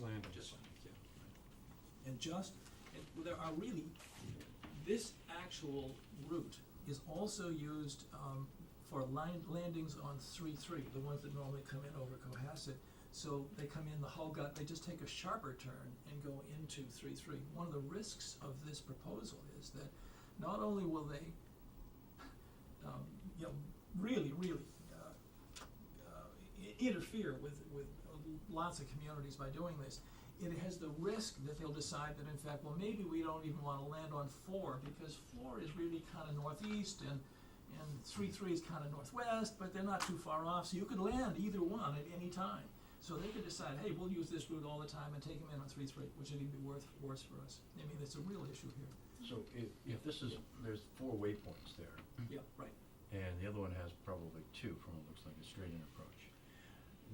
Land, Just- yeah. and just, and well, there are really, this actual route is also used, um, for line, landings on three-three, the ones that normally come in over Cohasset. So they come in the Hull gut, they just take a sharper turn and go into three-three. One of the risks of this proposal is that not only will they, um, you know, really, really, uh, uh, i- interfere with, with lots of communities by doing this. It has the risk that they'll decide that in fact, well, maybe we don't even wanna land on four, because four is really kinda northeast and, and three, three is kinda northwest, but they're not too far off, so you could land either one at any time. So they could decide, hey, we'll use this route all the time and take them in on three, three, which would even be worth, worse for us. I mean, it's a real issue here. So if, if this is, there's four waypoints there, Yeah, right. and the other one has probably two from what looks like a straight-in approach.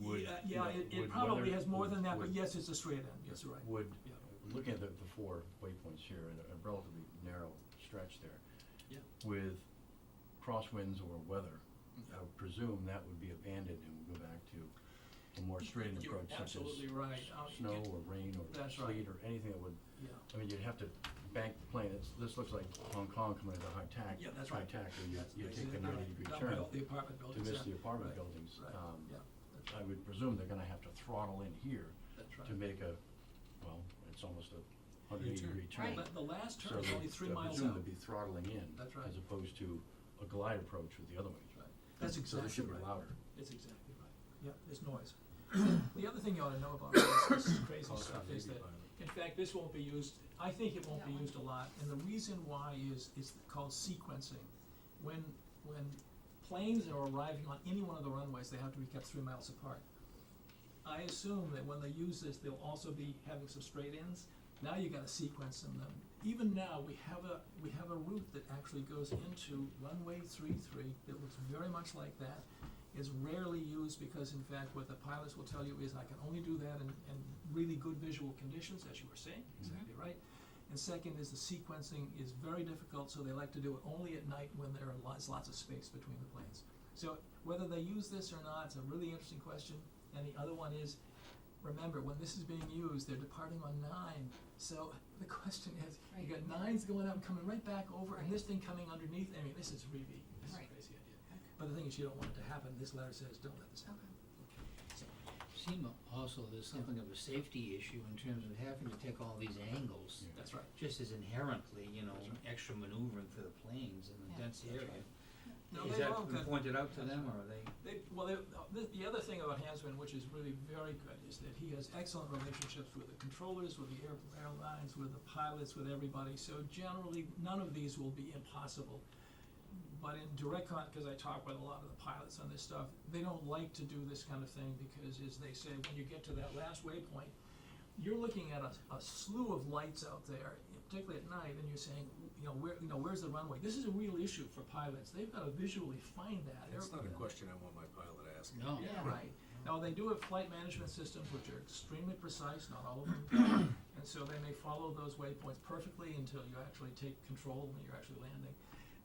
Would, Yeah, yeah, it, would it probably whether- has more than that, but would- yes, it's a straight end, yes, you're right. Would, Yeah. looking at the, the four waypoints here, and a relatively narrow stretch there. Yeah. With crosswinds or weather, Mm-hmm. I would presume that would be abandoned and would go back to a more straight-in You're approach such as absolutely right. Uh, s- snow it- or rain or That's right. sleet or anything that would Yeah, I mean, you'd have to bank the plane, it's, this looks like Hong Kong coming into high tack. Yeah, that's right. High tack, and you, That's you take basically the right. ninety degree Down by turn all The apartment to buildings, miss yeah. the apartment Right, buildings. right, Um, yeah, that's I right, would presume they're gonna have to throttle in here that's right. to make a, well, it's almost a hundred eighty degree turn. Right. But the last So turn is they- only three I miles presume out. they'd be throttling in. That's right. As opposed to a glide approach with the other one. Right. That's So they exactly should be right. louder. It's exactly right. Yeah, there's noise. The other thing you ought to know about all this this crazy Call it stuff a is baby that, pilot. in fact, this won't be used, I think it won't That be one. used a lot, and the reason why is, it's called sequencing. When, when planes are arriving on any one of the runways, they have to be kept three miles apart. I assume that when they use this, they'll also be having some straight ins. Now you gotta sequence them then. Even now, we have a, we have a route that actually goes into runway three three that looks very much like that. Is rarely used because in fact, what the pilots will tell you is, I can only do that in, in really good visual conditions, as you were saying, exactly right. And second is the sequencing is very difficult, so they like to do it only at night when there are lots, lots of space between the planes. So whether they use this or not, it's a really interesting question. And the other one is, remember, when this is being used, they're departing on nine. So the question is, you got Right. nines going up, coming right back over, and Right. this thing coming underneath. I mean, this is really, this is a Right. crazy idea. But the thing is, you don't want it to happen. This letter says, don't let this happen. So, Seem also there's something of a safety issue in terms of having to take all these angles, Yeah. that's right. just as inherently, you know, That's right. extra maneuvering for the planes in Yeah. the dense That's area. right. No, Is they've that all been got- pointed out to them, or are they, They, well, they, the, the other thing about Hansman, which is really very good, is that he has excellent relationships with the controllers, with the air, airlines, with the pilots, with everybody, so generally, none of these will be impossible. But in direct con, cause I talk with a lot of the pilots on this stuff, they don't like to do this kind of thing, because as they say, when you get to that last waypoint, you're looking at a, a slew of lights out there, particularly at night, and you're saying, you know, where, you know, where's the runway? This is a real issue for pilots, they've gotta visually find that. That's not a Every- question I want my pilot asking. no? yeah, right. Now, they do have flight management systems which are extremely precise, not all of them, and so they may follow those waypoints perfectly until you actually take control when you're actually landing.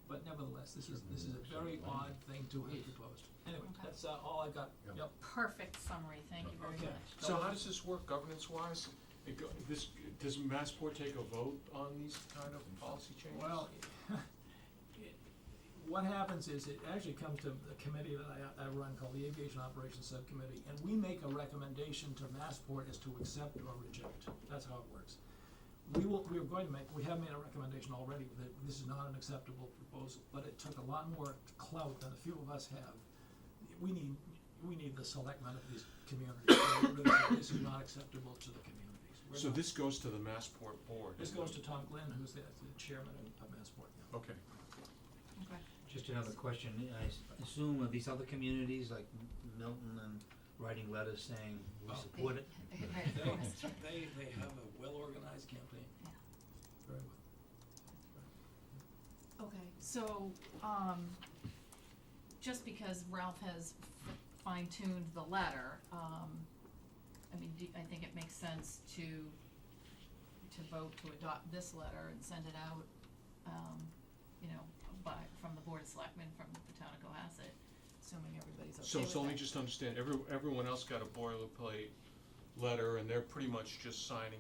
But nevertheless, this is, this is a very odd thing to have proposed. Anyway, Okay. that's uh, all I've got. Yeah. Yep, Perfect summary, thank you very Okay. much. So how does this work governance wise? It go, this, does Massport take a vote on these kind of policy changes? well, it- what happens is it actually comes to the committee that I, I run called the Aviation Operations Subcommittee, and we make a recommendation to Massport as to accept or reject. That's how it works. we will, we are going to make, we have made a recommendation already that this is not an acceptable proposal, but it took a lot more clout than a few of us have. We need, we need the selectmen of these communities, to really say, this is not acceptable to the communities. We're So not- this goes to the Massport board? This goes to Tom Glenn, who's the the chairman of- of Massport now. Okay. Okay. Just another question, I s- assume are these other communities like M- Milton and writing letters saying, we Oh. support it? Right, of course. They, they have a well-organized campaign. Yeah. Very well. Okay, so, um, just because Ralph has fine tuned the letter, um, I mean, do- I think it makes sense to, to vote to adopt this letter and send it out, um, you know, by, from the Board of Selectmen, from the town of Cohasset, assuming everybody's okay So with it's only that. just to understand, every, everyone else got a boilerplate letter, and they're pretty much just signing